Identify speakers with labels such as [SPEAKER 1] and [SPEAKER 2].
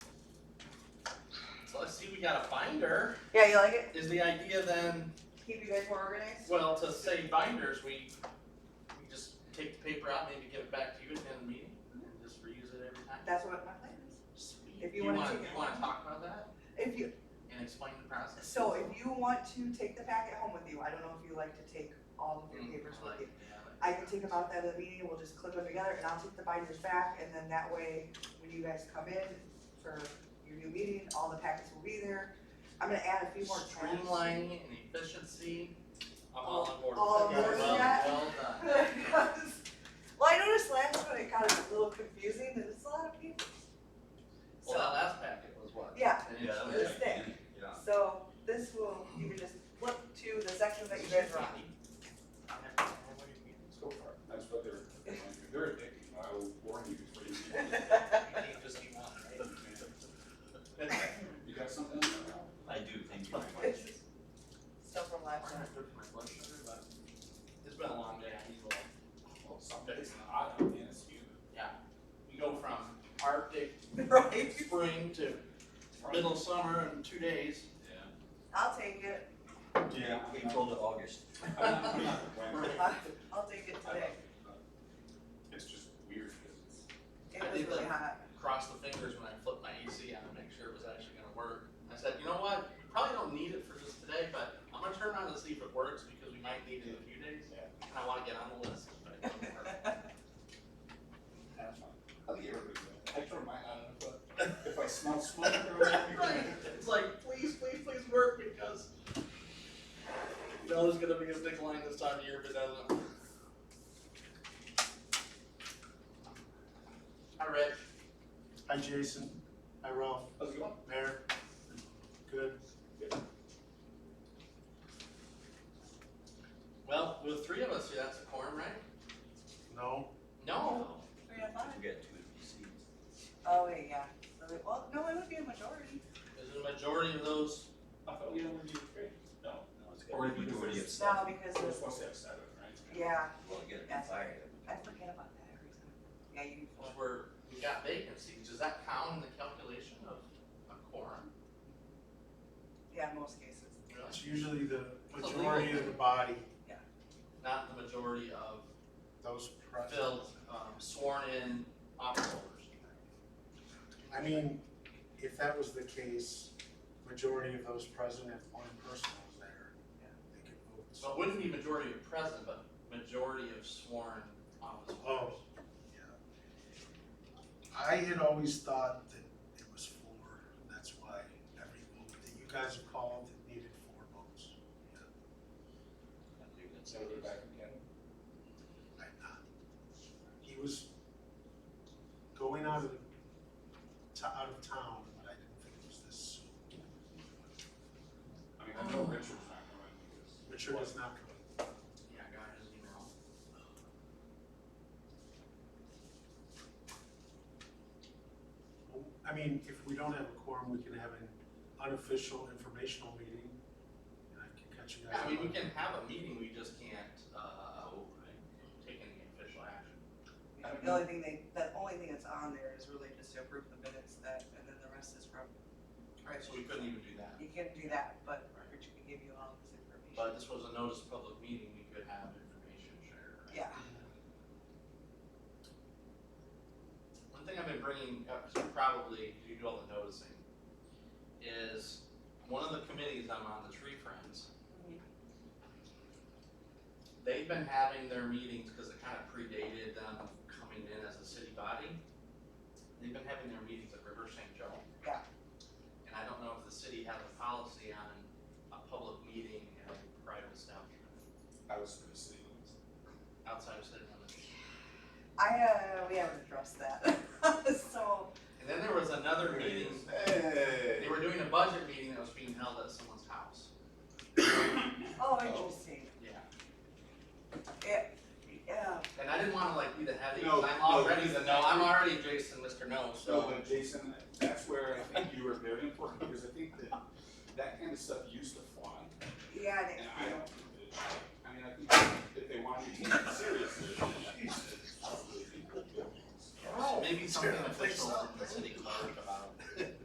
[SPEAKER 1] I see we got a binder.
[SPEAKER 2] Yeah, you like it?
[SPEAKER 1] Is the idea then,
[SPEAKER 2] Keep you guys more organized?
[SPEAKER 1] well, to say binders, we, we just take the paper out, maybe give it back to you at the end of the meeting, and then just reuse it every time?
[SPEAKER 2] That's what my plan is.
[SPEAKER 1] Sweet.
[SPEAKER 2] If
[SPEAKER 1] Do
[SPEAKER 2] you
[SPEAKER 1] you
[SPEAKER 2] wanna
[SPEAKER 1] wanna,
[SPEAKER 2] take it.
[SPEAKER 1] you wanna talk about that
[SPEAKER 2] If you,
[SPEAKER 1] and explain the process?
[SPEAKER 2] so if you want to take the packet home with you, I don't know if you like to take all of your
[SPEAKER 1] Mm,
[SPEAKER 2] papers
[SPEAKER 1] I
[SPEAKER 2] with
[SPEAKER 1] like
[SPEAKER 2] you.
[SPEAKER 1] it, yeah, I like
[SPEAKER 2] I
[SPEAKER 1] it.
[SPEAKER 2] can take them out at the end of the meeting, we'll just clip them together and I'll take the binders back and then that way, when you guys come in for your new meeting, all the packets will be there. I'm gonna add a few more tabs.
[SPEAKER 1] Streamlining and efficiency, I'm all on board. with
[SPEAKER 2] All
[SPEAKER 1] that.
[SPEAKER 2] over
[SPEAKER 1] Well-
[SPEAKER 2] that?
[SPEAKER 1] Well done.
[SPEAKER 2] Well, I noticed last one it got a little confusing and it's a lot of people.
[SPEAKER 1] Well, that
[SPEAKER 2] So,
[SPEAKER 1] last packet was what?
[SPEAKER 2] Yeah.
[SPEAKER 1] An inch
[SPEAKER 3] Yeah,
[SPEAKER 1] and a
[SPEAKER 3] that was
[SPEAKER 1] half.
[SPEAKER 2] This thing.
[SPEAKER 3] Yeah.
[SPEAKER 2] so this will, you can just flip to the section that you guys are on.
[SPEAKER 3] So far, that's what they're, they're addicting, I will warn you before you leave. You got something?
[SPEAKER 4] I do, thank you very much.
[SPEAKER 2] Stuff from last time.
[SPEAKER 1] It's been a long day, I need a little-
[SPEAKER 3] Well, something, it's hot, I mean, it's humid.
[SPEAKER 1] we go from Arctic
[SPEAKER 2] Right.
[SPEAKER 1] spring to middle summer in two days.
[SPEAKER 2] I'll take it,
[SPEAKER 4] Yeah, we told it August.
[SPEAKER 3] Yeah. When-
[SPEAKER 2] I'll take it today.
[SPEAKER 3] It's just weird, 'cause it's,
[SPEAKER 2] It was really hot.
[SPEAKER 1] Crossed the fingers when I flipped my AC on to make sure it was actually gonna work. I said, you know what, probably don't need it for just today, but I'm gonna turn around and see if it works because we might need it in a few days.
[SPEAKER 3] Yeah.
[SPEAKER 1] And I wanna get on the list, but it doesn't work.
[SPEAKER 3] that's fine. I think everybody does. I turn mine on, but if I smell smoke, I don't
[SPEAKER 1] Right.
[SPEAKER 3] know.
[SPEAKER 1] It's like, please, please, please work because you know there's gonna be a big line this time of year if it doesn't. Hi, Rich.
[SPEAKER 5] Hi, Jason. Hi, Ralph.
[SPEAKER 3] How's it going?
[SPEAKER 5] Mayor. Good.
[SPEAKER 1] Well, with three of us here, that's a quorum, right?
[SPEAKER 5] No?
[SPEAKER 1] No.
[SPEAKER 2] Three to oh five.
[SPEAKER 4] We got two NPCs.
[SPEAKER 2] Oh, wait, yeah, so, it- well, no, it would be a majority.
[SPEAKER 1] Is the majority of those,
[SPEAKER 3] I thought we only did three. No.
[SPEAKER 4] No, it's got a majority of
[SPEAKER 2] No,
[SPEAKER 4] seven.
[SPEAKER 2] because,
[SPEAKER 3] We're
[SPEAKER 2] it's-
[SPEAKER 3] supposed to have seven, right?
[SPEAKER 2] yeah,
[SPEAKER 4] Well, again,
[SPEAKER 2] That's
[SPEAKER 4] five.
[SPEAKER 2] I forget about that every time. Yeah, you,
[SPEAKER 1] which were, we got vacancies, does that count in the calculation of a quorum?
[SPEAKER 2] yeah, most cases.
[SPEAKER 1] Really?
[SPEAKER 5] It's usually the majority of the body,
[SPEAKER 1] Not the majority of
[SPEAKER 5] those present.
[SPEAKER 1] filled, um, sworn in office holders.
[SPEAKER 5] I mean, if that was the case, majority of those present, if one person was there, they could vote.
[SPEAKER 1] So it wouldn't be majority of present, but majority of sworn office holders.
[SPEAKER 5] Oh. I had always thought that it was four, that's why every vote that you guys have called, it needed four votes.
[SPEAKER 4] I believe that's
[SPEAKER 3] So we're
[SPEAKER 4] it.
[SPEAKER 3] back again.
[SPEAKER 5] I'm not. He was going out of, to, out of town, but I didn't think it was this soon.
[SPEAKER 3] I mean, I know Richard's not going because.
[SPEAKER 5] Richard is not coming.
[SPEAKER 1] Yeah, I got his email.
[SPEAKER 5] I mean, if we don't have a quorum, we can have an unofficial informational meeting, and I can catch you guys.
[SPEAKER 1] Yeah, I mean, we
[SPEAKER 5] up.
[SPEAKER 1] can have a meeting, we just can't, uh, take any official action.
[SPEAKER 3] I don't
[SPEAKER 2] The
[SPEAKER 3] know.
[SPEAKER 2] only thing they, the only thing that's on there is really just to approve the minutes that, and then the rest is from,
[SPEAKER 1] Right, so we couldn't even do that.
[SPEAKER 2] you can do that, but Richard can give you all this information.
[SPEAKER 1] But this was a notice of public meeting, we could have information shared. right?
[SPEAKER 2] Yeah.
[SPEAKER 1] One thing I've been bringing up, because probably you do all the noticing, is one of the committees I'm on, the Tree Friends,
[SPEAKER 2] Mhm.
[SPEAKER 1] they've been having their meetings, because it kind of predated them coming in as a city body. They've been having their meetings at River St. Joe.
[SPEAKER 2] Yeah.
[SPEAKER 1] And I don't know if the city has a policy on a public meeting at a private establishment
[SPEAKER 3] I was gonna say,
[SPEAKER 1] outside of city limits.
[SPEAKER 2] I, uh, we haven't addressed that, so, oh,
[SPEAKER 1] And then there was another meeting,
[SPEAKER 3] hey.
[SPEAKER 1] they were doing a budget meeting that was being held at someone's house.
[SPEAKER 2] oh, interesting,
[SPEAKER 1] Yeah.
[SPEAKER 2] yeah.
[SPEAKER 1] And I didn't wanna like be the heavy,
[SPEAKER 3] No,
[SPEAKER 1] 'cause I'm
[SPEAKER 3] no,
[SPEAKER 1] already
[SPEAKER 3] he's
[SPEAKER 1] the
[SPEAKER 3] the
[SPEAKER 1] no, I'm
[SPEAKER 3] heavy.
[SPEAKER 1] already Jason, Mr. No,
[SPEAKER 3] So,
[SPEAKER 1] so.
[SPEAKER 3] but Jason, that's where I think you were very important, because I think that that kind of stuff used to fly,
[SPEAKER 2] Yeah,
[SPEAKER 3] and
[SPEAKER 2] and it-
[SPEAKER 3] I don't, I mean, I think if they wanted you to take it serious,